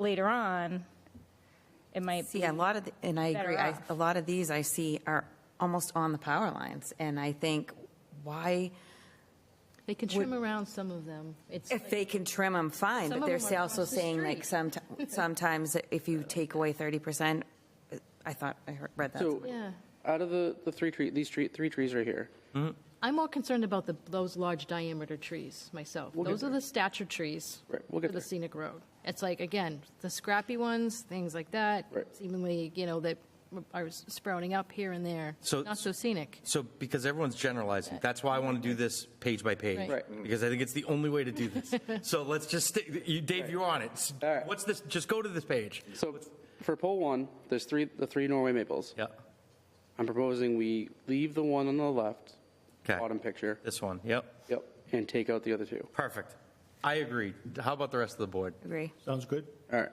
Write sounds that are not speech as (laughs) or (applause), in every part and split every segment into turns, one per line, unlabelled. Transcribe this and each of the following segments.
later on, it might be.
See, a lot of, the- and I
better
agree, I-
off.
a lot of these I see are almost on the power lines, and I think, why,
They can trim around some of them. It's,
if they can trim them, fine,
Some
but
of
they're
them are
say- also
across the
saying like some,
(laughs)
sometimes if you take away 30%, I thought, I heard- read that.
So,
yeah.
out of the, the three tree, these tree, three trees right here,
I'm more concerned about the, those large diameter trees myself.
get
Those are the stature trees.
Right, we'll get
For the
there.
scenic road. It's like, again, the scrappy ones, things like that.
Right.
Seemingly, you know, that are sprouting up here and there.
So-
Not so scenic.
So, because everyone's generalizing, that's why I want to do this page by page.
Right.
Right.
Because I think it's the only way to
(laughs)
do this. So let's just, stick- you- Dave, you're on it. S-
All right.
What's this, just go to this page.
so for pole one, there's three, the three Norway maples.
Yeah,
I'm proposing we leave the one on the left,
Okay.
bottom picture,
this one, yep,
yep, and take out the other two.
perfect. I agree. How about the rest of the board?
Agree.
Sounds good.
All right,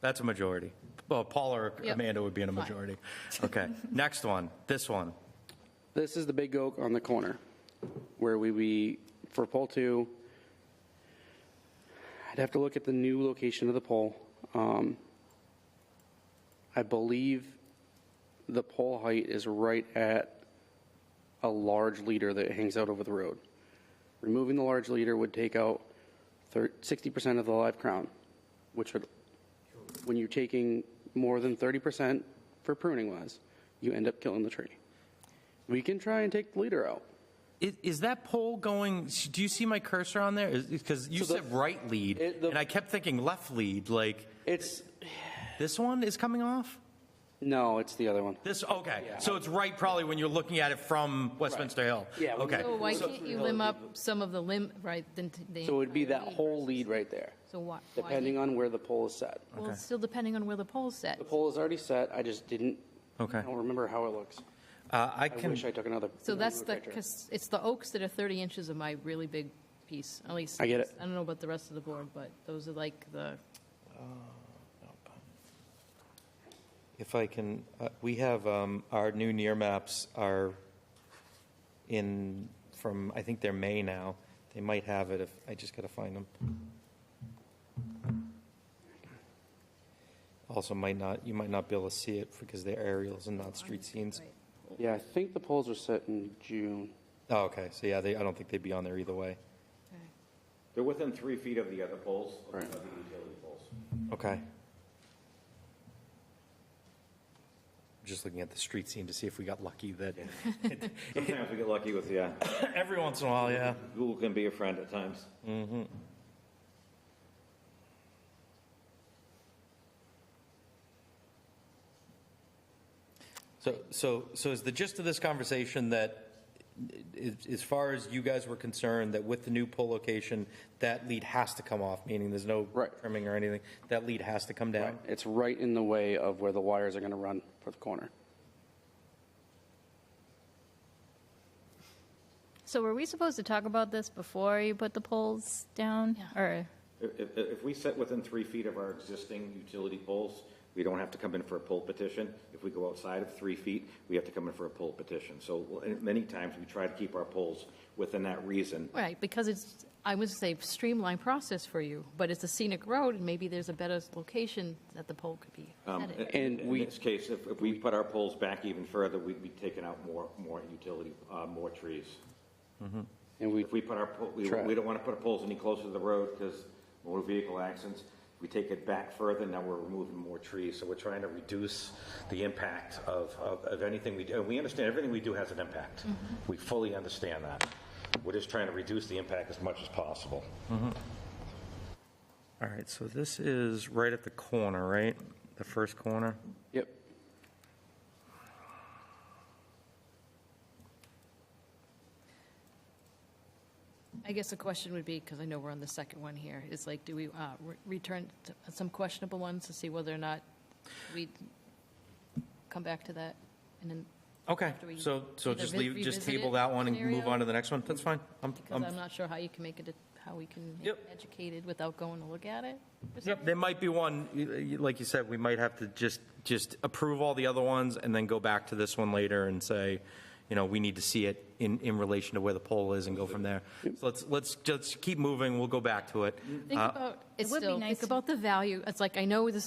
That's a majority. Well, Paul or
Yep.
Amanda would be in a
Fine.
majority.
(laughs)
Okay, next one, this one.
this is the big oak on the corner, where we, we, for pole two, I'd have to look at the new location of the pole. Um, I believe the pole height is right at a large leader that hangs out over the road. Removing the large leader would take out thir- 60% of the live crown, which would, when you're taking more than 30% for pruning wise, you end up killing the tree. We can try and take the leader out.
Is, is that poll going, do you see my cursor on there? Because you
So the-
said right lead,
It- the-
and I kept thinking left lead, like,
It's,
this one is coming off?
no, it's the other one.
This, okay, so it's right probably when you're looking at it from Westminster Hill?
Yeah, when
Okay,
you-
So why can't you limb up some of the limb, right? then t- the
So it would be that
entire lead.
whole lead right there,
So why? why-
depending on where the pole is set.
Well, it's still depending on where the pole's set.
The pole is already set, I just didn't,
Okay.
I don't remember how it looks.
Uh, I
I
can,
wish I took another.
So that's the,
picture.
because it's the oaks that are 30 inches of my really big piece, at least.
I get it.
I don't know about the rest of the board, but those are like the,
If I can, uh, we have, um, our new near maps are in, from, I think they're May now. They might have it if, I just got to find them. Also might not, you might not be able to see it because they're aerials and not street scenes.
Yeah, I think the poles were set in June.
Oh, okay, so yeah, they, I don't think they'd be on there either way.
They're within three feet of the other poles, of the
Right.
of the utility poles.
Okay. Just looking at the street scene to see if we got lucky that,
Sometimes we get lucky with, yeah,
(laughs) every once in a while, yeah.
Google can be a friend at times.
So, so, so is the gist of this conversation that, i- as far as you guys were concerned, that with the new pole location, that lead has to come off, meaning there's no
Right.
trimming or anything, that lead has to come down?
It's right in the way of where the wires are going to run for the corner.
So were we supposed to talk about this before you put the poles down?
Yeah.
Or,
If, if- if we set within three feet of our existing utility poles, we don't have to come in for a pole petition. If we go outside of three feet, we have to come in for a pole petition. So and many times, we try to keep our poles within that reason.
right, because it's, I would say streamlined process for you, but it's a scenic road, and maybe there's a better location that the pole could be
Um,
at it.
And
In
we-
this case, if, if we put our poles back even further, we'd be taking out more, more utility, uh, more trees.
And we,
If we put our, po- we,
Try.
we don't want to put our poles any closer to the road because motor vehicle accidents. If We take it back further, now we're removing more trees. So we're trying to reduce the impact of, of, of anything we do. And we understand everything we do has an impact. We fully understand that. We're just trying to reduce the impact as much as possible.
All right, so this is right at the corner, right? The first corner?
yep,
I guess the question would be, because I know we're on the second one here, is like, do we uh, re- return to some questionable ones to see whether or not we come back to that? And then,
Okay,
After we
so, so just
revi-
leave, just
revisit
table
it
that one and move
scenario?
on to the next one? That's fine. I'm,
because
I'm,
I'm not sure how you can make it, a- how we can make
Um, Yep.
it educated without going to look at it. or
Yep, there might be one, y- y- like you said, we might have to just, just approve all the other ones and then go back to this one later and say, you know, we need to see it in, in relation to where the pole is and go from there. So let's, let's just keep moving, we'll go back to it.
Think
Uh,
about, it's
would be
still,
nice
think
to-
about the value. It's like, I know this